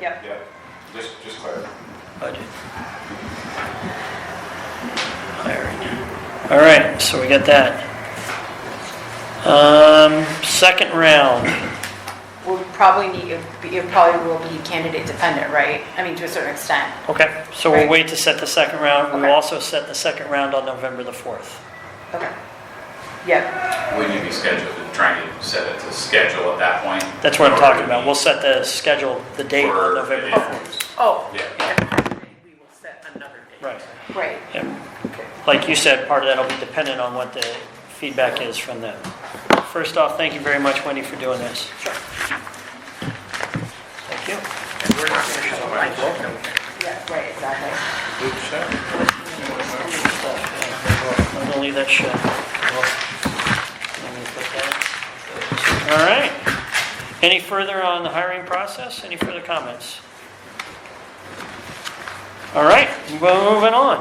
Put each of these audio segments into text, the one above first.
Yep. Yep, just, just clarify. budget. Hiring. All right, so we got that. Um, second round, We'll probably need, it probably will be candidate dependent, right? I mean, to a certain extent. okay, so we'll wait to set the second round. We'll Okay. also set the second round on November the 4th. Okay. Yep, Would you be scheduled, trying to set it to schedule at that point? That's what I'm talking about. We'll set the schedule, the date on November the 4th. oh. Yeah. We will set another date. Right. Right, Yeah. Like you said, part of that will be dependent on what the feedback is from them. First off, thank you very much, Wendy, for doing this. Sure. Thank you. And we're not going to go like that. yeah, right, exactly. I'm gonna leave that shut. Let me put that- All right. Any further on the hiring process? Any further comments? All right, well, moving on.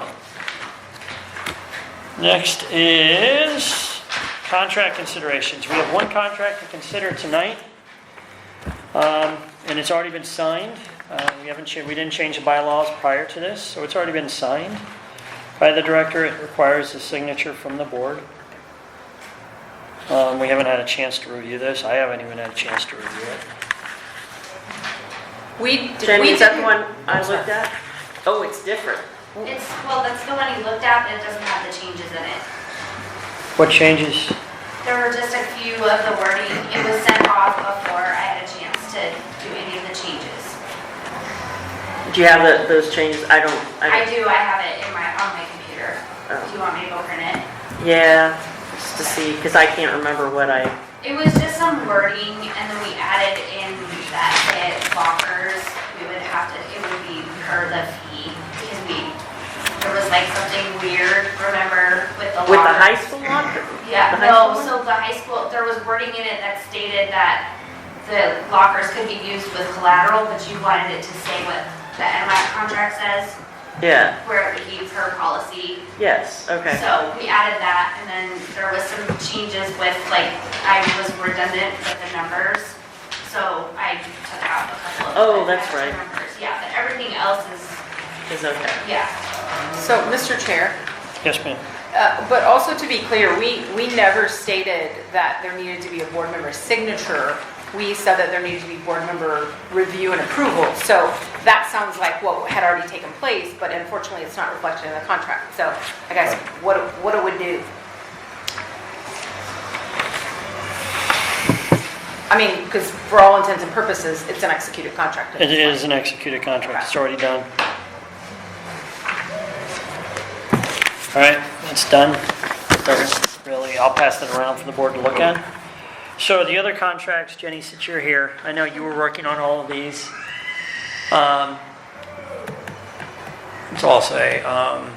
Next is contract considerations. We have one contract to consider tonight. Um, And it's already been signed. Uh, We haven't, cha- we didn't change the bylaws prior to this, so it's already been signed by the director. It requires a signature from the board. Um, We haven't had a chance to review this. I haven't even had a chance to review it. We, Jenny, we is that did the one I looked at? Oh, it's different. It's, well, that's the one you looked at, but it doesn't have the changes in it. What changes? There were just a few of the wording. It was sent off before I had a chance to do any of the changes. Do you have the- those changes? I don't, I I do, I have it in my, on my computer. Oh. Do you want me to go print it? don't, yeah, just to see, because I can't remember what I, It was just some wording, and then we added in that it lockers, we would have to, it would be per the fee, because we, there was like something weird, remember, with the with lockers. the high school locker. Yeah, The high no, school so the high school, there was wording in it that stated that the lockers could be used with collateral, but you wanted it to say what the NMAC contract says, Yeah, where it became per policy. yes, okay. So we added that, and then there was some changes with, like, I was redundant with the numbers, so I took out a couple of. Oh, the that's extra right. numbers. Yeah, but everything else is, It's okay. yeah. So, Mr. Chair, Yes, ma'am. uh, but also to be clear, we, we never stated that there needed to be a board member signature. We said that there needed to be board member review and approval. So that sounds like what had already taken place, but unfortunately, it's not reflected in the contract. So I guess what, it- what it would do. I mean, because for all intents and purposes, it's an executed contract. It is an executed contract. It's already done. All right, it's done. Doesn't Really, I'll pass it around for the board to look at. So the other contracts, Jenny, since you're here, I know you were working on all of these. Um, It's also a, um,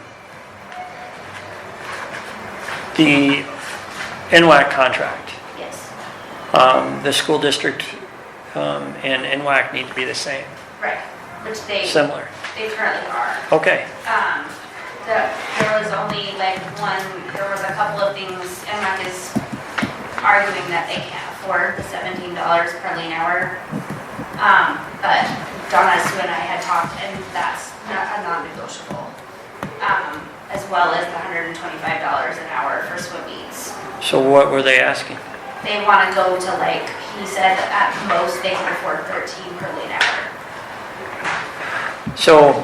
the NWAC contract. Yes, Um, The school district um, and NWAC need to be the same, right, which they, similar. they currently are. Okay, um, the, there was only like one, there was a couple of things, and Mike is arguing that they can't afford the seventeen dollars per lane hour. Um, but Donna Sue and I had talked, and that's not a non-negotiable. Um, as well as the hundred and twenty-five dollars an hour for swim meets. so what were they asking? They wanna go to like, he said at most they can afford thirteen per lane hour. So,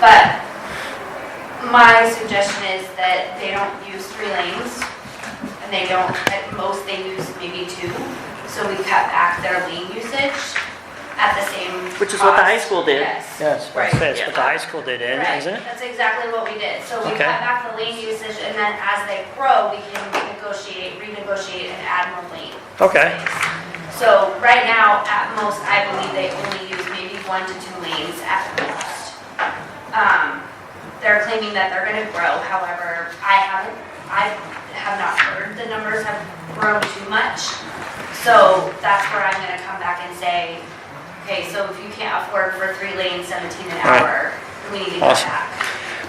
But my suggestion is that they don't use three lanes, and they don't, at most they use maybe two. So we cut back their lane usage at the same. Which is what the high cost. school did. Yes. yes, Right, that's yeah. what the high school did, Right, isn't it? that's exactly what we did. So we Okay. cut back the lane usage, and then as they grow, we can negotiate, renegotiate, and add more lane. Okay, So right now, at most, I believe they only use maybe one to two lanes at most. Um, They're claiming that they're gonna grow, however, I haven't, I have not heard the numbers have grown too much. So that's where I'm gonna come back and say, okay, so if you can't afford for three lanes, 17 an Right. hour, we need to cut Awesome. back.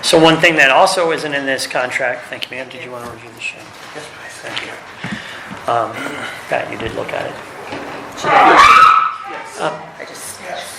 so one thing that also isn't in this contract, thank you ma'am, did you want to review the show? Yes, please. Thank you. Um, Pat, you did look at it. Yes. I just.